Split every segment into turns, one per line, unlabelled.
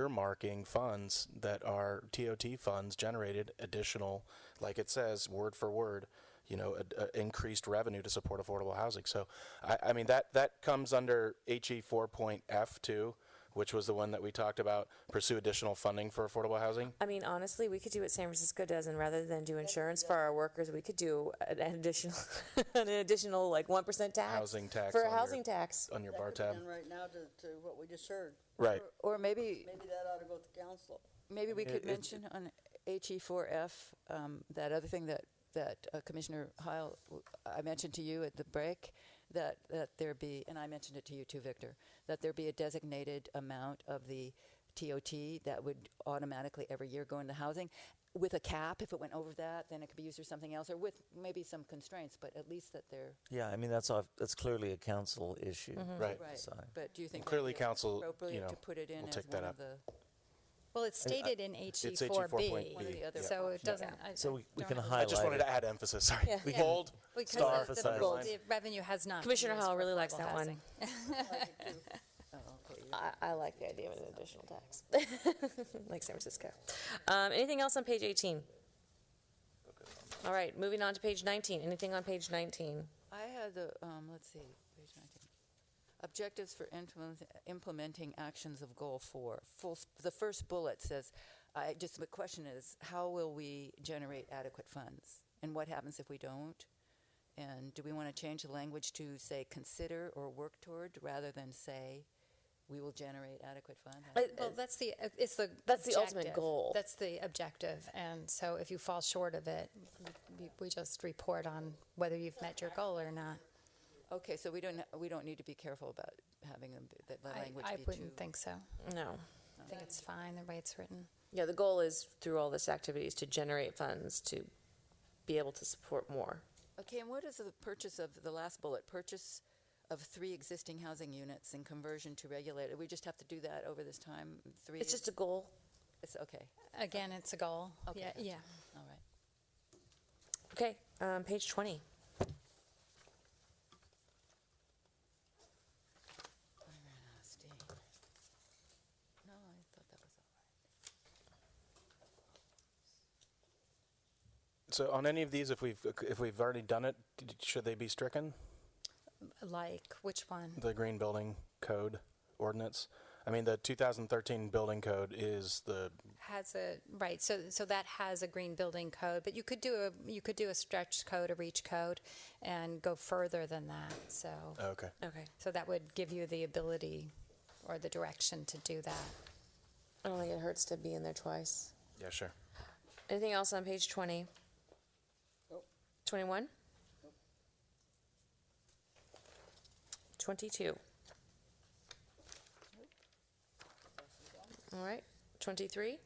earmarking funds that are TOT funds generated additional, like it says, word for word, you know, a, a increased revenue to support affordable housing. So, I, I mean, that, that comes under E HE 4.F too, which was the one that we talked about, pursue additional funding for affordable housing.
I mean, honestly, we could do what San Francisco does, and rather than do insurance for our workers, we could do an additional, an additional like one percent tax.
Housing tax
For
on
a
your-
housing tax.
On your
That
bar
could be
tab.
done Right now to, to what we just heard.
Right.
Or maybe,
Maybe that ought to go to the council.
maybe we
it-
could
it-
mention on HE4F, um, that other thing that, that uh, Commissioner Heil, w- I mentioned to you at the break, that, that there be, and I mentioned it to you too, Victor, that there be a designated amount of the TOT that would automatically every year go into housing with a cap. If it went over that, then it could be used for something else, or with maybe some constraints, but at least that they're,
Yeah, I mean, that's, off- that's clearly a council issue.
Right.
right.
Sorry.
But do you think that'd
Clearly,
be
council, you
appropriate
know,
to put it in
will
as
take that
one
up.
of the?
Well, it's stated in HE
HE
four
4.B.
B.
One of the
other
So it doesn't. I-
So
I
we- we
don't
can
have a-
I
highlight
just wanted
it.
to add emphasis, sorry.
Yeah.
Bold,
Because
star.
the- the,
Emphasize.
the, revenue has not. been
Commissioner
used
Howell
for
really likes
affordable
that
housing.
one. I, I like the idea of an additional tax, like San Francisco. Um, anything else on page 18? All right, moving on to page 19. Anything on page 19?
I had the, um, let's see, page 19. Objectives for implement- implementing actions of goal four. Full, s- the first bullet says, I, just the question is, how will we generate adequate funds? And what happens if we don't? And do we want to change the language to say consider or work toward rather than say we will generate adequate funds?
Well, that's the, it's the.
That's the ultimate
objective.
goal.
That's the objective. And so if you fall short of it, we- we just report on whether you've met your goal or not.
Okay, so we don't, we don't need to be careful about having them, be- that the
I,
language
I
be too.
wouldn't think so.
No.
I think it's fine the way it's written.
Yeah, the goal is through all this activities to generate funds to be able to support more.
Okay, and what is the purchase of, the last bullet, purchase of three existing housing units and conversion to regulated? We just have to do that over this time, three?
It's just a goal.
It's okay,
Again, it's a goal.
Okay,
Yeah,
gotcha.
yeah.
all right.
Okay, um, page 20.
Nasty. No, I thought that was all right.
So on any of these, if we've, if we've already done it, d- should they be stricken?
Like, which one?
The green building code ordinance? I mean, the 2013 building code is the,
Has a, right, so, so that has a green building code, but you could do a, you could do a stretch code, a reach code, and go further than that, so.
oh, okay.
Okay.
So that would give you the ability or the direction to do that.
I don't think it hurts to be in there twice.
Yeah, sure.
Anything else on page 20?
Nope.
21? 22. All right, 23.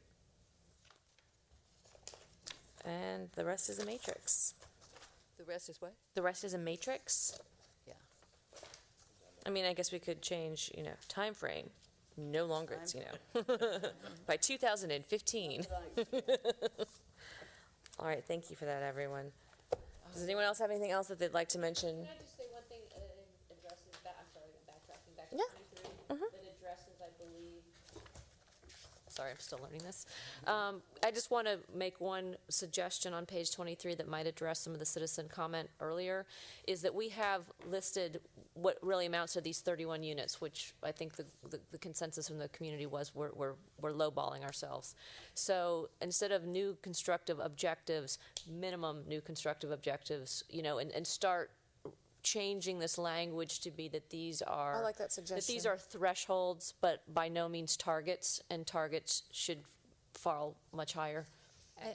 And the rest is a matrix.
The rest is what?
The rest is a matrix?
Yeah.
I mean, I guess we could change, you know, time frame. No longer, it's, you know, by 2015. All right, thank you for that, everyone. Does anyone else have anything else that they'd like to mention?
Can I just say one thing uh, in addresses back, I'm sorry, backtracking back to
Yeah.
twenty-three? That addresses, I believe,
Sorry, I'm still learning this.
Um, I just want to make one suggestion on page 23 that might address some of the citizen comment earlier, is that we have listed what really amounts to these 31 units, which I think the, the- the consensus from the community was we're, we're, we're lowballing ourselves. So instead of new constructive objectives, minimum new constructive objectives, you know, and, and start changing this language to be that these are.
I like that
That these
suggestion.
are thresholds, but by no means targets, and targets should fall much higher.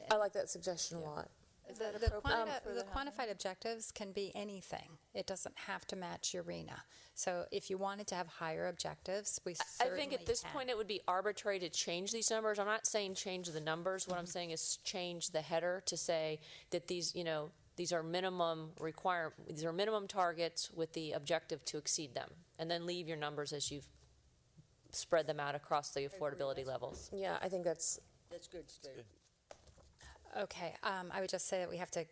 I like that suggestion a lot.
Is
The,
that
the
appropriate
quanti-
for
the
the housing?
quantified objectives can be anything. It doesn't have to match URENA. So if you wanted to have higher objectives, we
I
certainly
think at this
can.
point, it would be arbitrary to change these numbers. I'm not saying change the numbers. What I'm
Mm-hmm.
saying is change the header to say that these, you know, these are minimum require, these are minimum targets with the objective to exceed them. And then leave your numbers as you've spread them out across the affordability levels.
Yeah, I think that's,
That's good, Steve.
Okay, um, I would just say that we have to,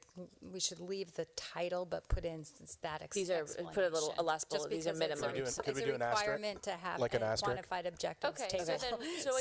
we should leave the title, but put in s- that ex-
These are- put a little- a last
explanation.
bullet,
Just
these are
because it's a-
minimum. Could
we do an- could
It's
we
a
do an asterisk?
requirement to have
Like an
a
asterisk?
quantified objectives
Okay, so
table.
then, so